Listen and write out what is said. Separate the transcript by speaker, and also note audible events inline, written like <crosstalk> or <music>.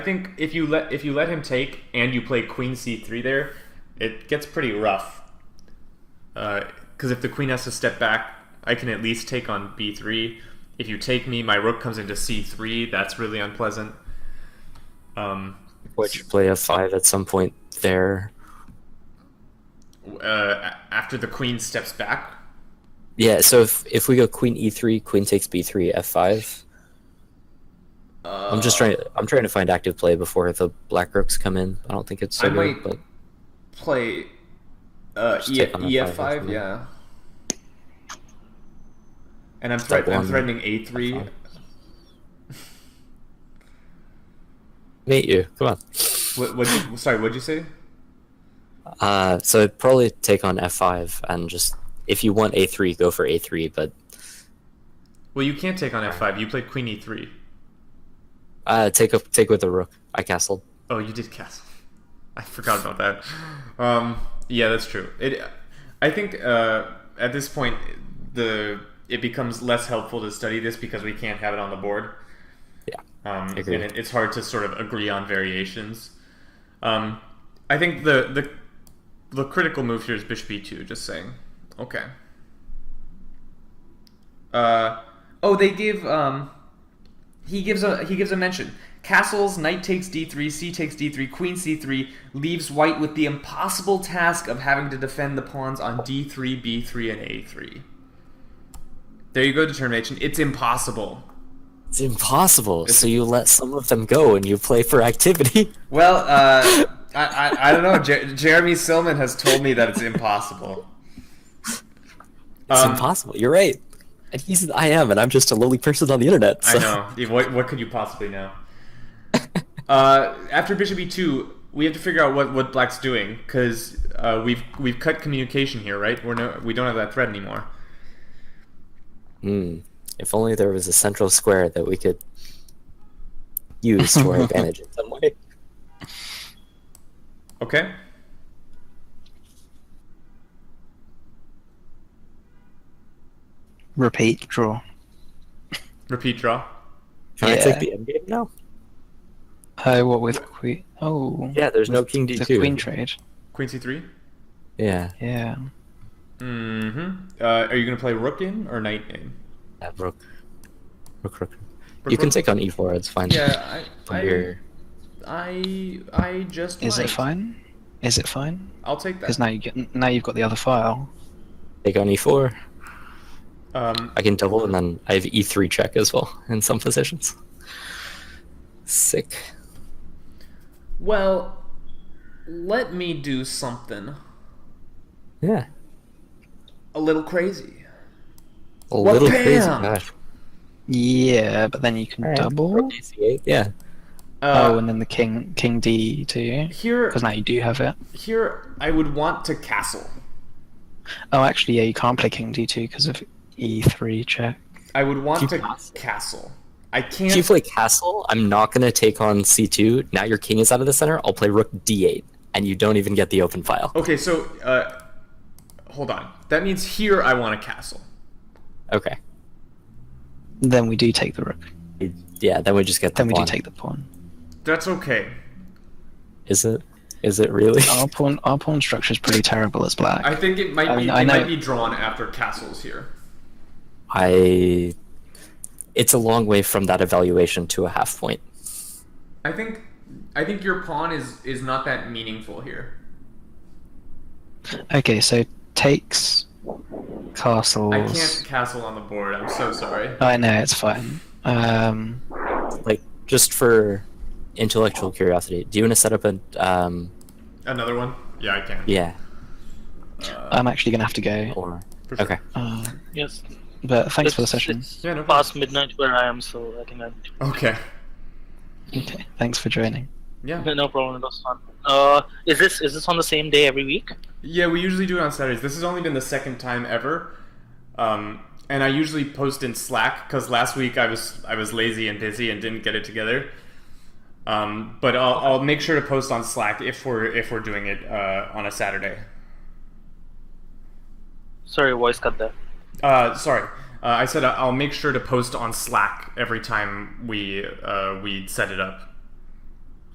Speaker 1: I think if you let if you let him take and you play queen c3 there, it gets pretty rough. Because if the queen has to step back, I can at least take on b3. If you take me, my rook comes into c3. That's really unpleasant. Um,
Speaker 2: Which play f5 at some point there.
Speaker 1: uh, a- after the queen steps back,
Speaker 2: Yeah, so if if we go queen e3, queen takes b3, f5.
Speaker 1: uh,
Speaker 2: I'm just trying. I'm trying to find active play before the black rooks come in. I don't think it's so
Speaker 1: I
Speaker 2: good,
Speaker 1: might-
Speaker 2: but
Speaker 1: play uh,
Speaker 2: Just
Speaker 1: e-
Speaker 2: take on F5,
Speaker 1: ef5.
Speaker 2: definitely.
Speaker 1: Yeah. And I'm,
Speaker 2: Step
Speaker 1: threat- I'm
Speaker 2: one,
Speaker 1: threatening a3.
Speaker 2: meet you. Come on.
Speaker 1: What, what, sorry, what'd you say?
Speaker 2: Uh, so I'd probably take on f5 and just if you want a3, go for a3. But
Speaker 1: Well, you can't take on f5. You played queen E e3.
Speaker 2: uh, take up take with the rook. I castled.
Speaker 1: Oh, you did castle. <laughs> I forgot about that. Um, yeah, that's true. It, I think uh, at this point the it becomes less helpful to study this because we can't have it on the board.
Speaker 2: Yeah,
Speaker 1: um, and
Speaker 2: agree.
Speaker 1: it, it's hard to sort of agree on variations. Um, I think the the the critical move here is bishop e2. Just saying. Okay. Uh, oh, they give um, he gives a he gives a mention. Castles, knight takes d3, c takes d3, queen c3 leaves white with the impossible task of having to defend the pawns on d3, b3, and a3. There you go, determination. It's impossible.
Speaker 2: It's impossible. so you let some of them go and you play for activity. <laughs>
Speaker 1: Well, uh, I, I I don't know. Jer- Jeremy Silman has told me that it's impossible.
Speaker 2: It's
Speaker 1: Um,
Speaker 2: impossible. You're right. And he's I am, and I'm just a lowly person on the internet.
Speaker 1: I
Speaker 2: So.
Speaker 1: know. What, what could you possibly know? Uh, after bishop e2, we have to figure out what, what black's doing because uh, we've we've cut communication here, right? We're no, we don't have that thread anymore.
Speaker 2: Hmm. If only there was a central square that we could use to
Speaker 3: <laughs>
Speaker 2: our advantage in some way.
Speaker 1: Okay.
Speaker 3: Repeat draw.
Speaker 1: Repeat draw.
Speaker 2: Can I
Speaker 3: Yeah.
Speaker 2: take the endgame now?
Speaker 3: Oh, what with queen? Oh,
Speaker 2: Yeah, there's no king
Speaker 3: the
Speaker 2: d2.
Speaker 3: queen trade.
Speaker 1: Queen c3.
Speaker 2: yeah,
Speaker 3: Yeah.
Speaker 1: Mm-hmm. Uh, are you gonna play rook in or knight in?
Speaker 2: that rook. Rook, rook.
Speaker 1: Rook,
Speaker 2: You can
Speaker 1: rook.
Speaker 2: take on e4, it's fine.
Speaker 1: Yeah, I
Speaker 2: <laughs> From here.
Speaker 1: I I, I just
Speaker 3: Is it
Speaker 1: might.
Speaker 3: fine? Is it fine?
Speaker 1: I'll take
Speaker 3: Because
Speaker 1: that.
Speaker 3: now you get now you've got the other file.
Speaker 2: Take on e4.
Speaker 1: Um,
Speaker 2: I can double, and then I have e3 check as well <laughs> in some positions. Sick.
Speaker 1: well, let me do something
Speaker 2: Yeah.
Speaker 1: a little crazy.
Speaker 2: A little crazy.
Speaker 1: bam!
Speaker 2: Gosh.
Speaker 3: Yeah, but then you can
Speaker 2: Alright,
Speaker 3: double.
Speaker 2: rook AC8. Yeah.
Speaker 3: oh,
Speaker 1: Uh,
Speaker 3: and then the king king d too.
Speaker 1: here
Speaker 3: Because now you do have it.
Speaker 1: here I would want to castle.
Speaker 3: Oh, actually, yeah, you can't play king d two because of e three check.
Speaker 1: I would want
Speaker 2: Keep
Speaker 1: to
Speaker 2: castle.
Speaker 1: castle. I can't.
Speaker 2: If you play castle, I'm not going to take on c2. Now your king is out of the center. I'll play rook d8, and you don't even get the open file.
Speaker 1: okay, so uh, hold on. That means here I want to castle.
Speaker 2: Okay.
Speaker 3: Then we do take the rook.
Speaker 2: Yeah, then we just get the
Speaker 3: Then we do
Speaker 2: pawn.
Speaker 3: take the pawn.
Speaker 1: That's okay.
Speaker 2: Is it? Is it really?
Speaker 3: Our pawn our pawn structure is pretty terrible as black.
Speaker 1: I think it might
Speaker 3: I
Speaker 1: be.
Speaker 3: mean, I
Speaker 1: it
Speaker 3: know-
Speaker 1: might be drawn after castles here.
Speaker 2: I. It's a long way from that evaluation to a half point.
Speaker 1: I think. I think your pawn is is not that meaningful here.
Speaker 3: Okay, so takes castles.
Speaker 1: I can't castle on the board. I'm so sorry.
Speaker 3: I know it's fine. Um,
Speaker 2: Like just for intellectual curiosity, do you want to set up a? Um,
Speaker 1: Another one? Yeah, I can. Uh,
Speaker 2: yeah.
Speaker 3: I'm actually gonna have to go.
Speaker 2: Or
Speaker 1: For sure.
Speaker 2: okay.
Speaker 3: Uh,
Speaker 4: Yes.
Speaker 3: but thanks for the
Speaker 4: It's- <laughs>
Speaker 3: session.
Speaker 4: It's
Speaker 1: Yeah, no
Speaker 4: past midnight where I am, so I think I'm.
Speaker 1: Okay.
Speaker 3: Okay, thanks for joining.
Speaker 1: Yeah.
Speaker 4: <laughs> No problem. It was fun. Uh, is this is this on the same day every week?
Speaker 1: Yeah, we usually do it on Saturdays. This has only been the second time ever. Um, and I usually post in Slack because last week I was I was lazy and busy and didn't get it together. Um, but I'll, I'll make sure to post on Slack if we're if we're doing it uh, on a Saturday.
Speaker 4: Sorry, voice cut there.
Speaker 1: Uh, sorry, uh, I said I- I'll make sure to post on Slack every time we uh, we set it up.